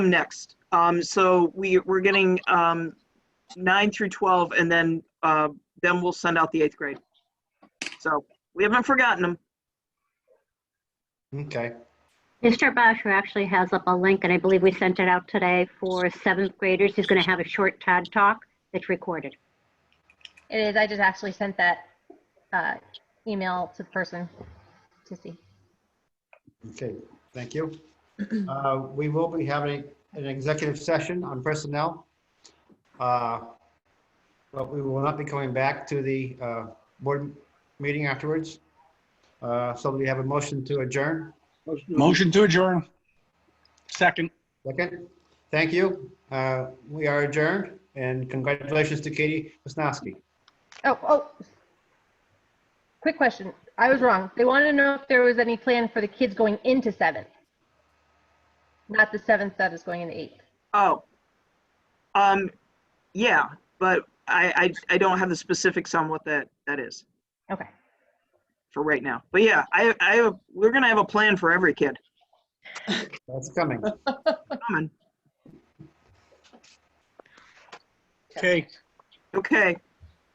next. Um, so we, we're getting, um, nine through 12 and then, uh, then we'll send out the eighth grade. So we haven't forgotten them. Okay, Mr. Basher actually has up a link, and I believe we sent it out today for seventh graders. He's going to have a short TED Talk that's recorded. It is. I just actually sent that uh, email to the person to see. okay, thank you. Uh, We will be having an executive session on personnel. Uh, But we will not be coming back to the uh, board meeting afterwards. Uh, So we have a motion to adjourn. Motion to adjourn. Second. Second, thank you. Uh, We are adjourned and congratulations to Katie Wasnowski. Oh, oh. Quick question. I was wrong. They wanted to know if there was any plan for the kids going into seventh. Not the seventh that is going into eighth. Oh. Um, yeah, but I, I, I don't have the specifics on what that, that is Okay. for right now. But yeah, I, I, we're gonna have a plan for every kid. That's coming. Coming. Okay. Okay,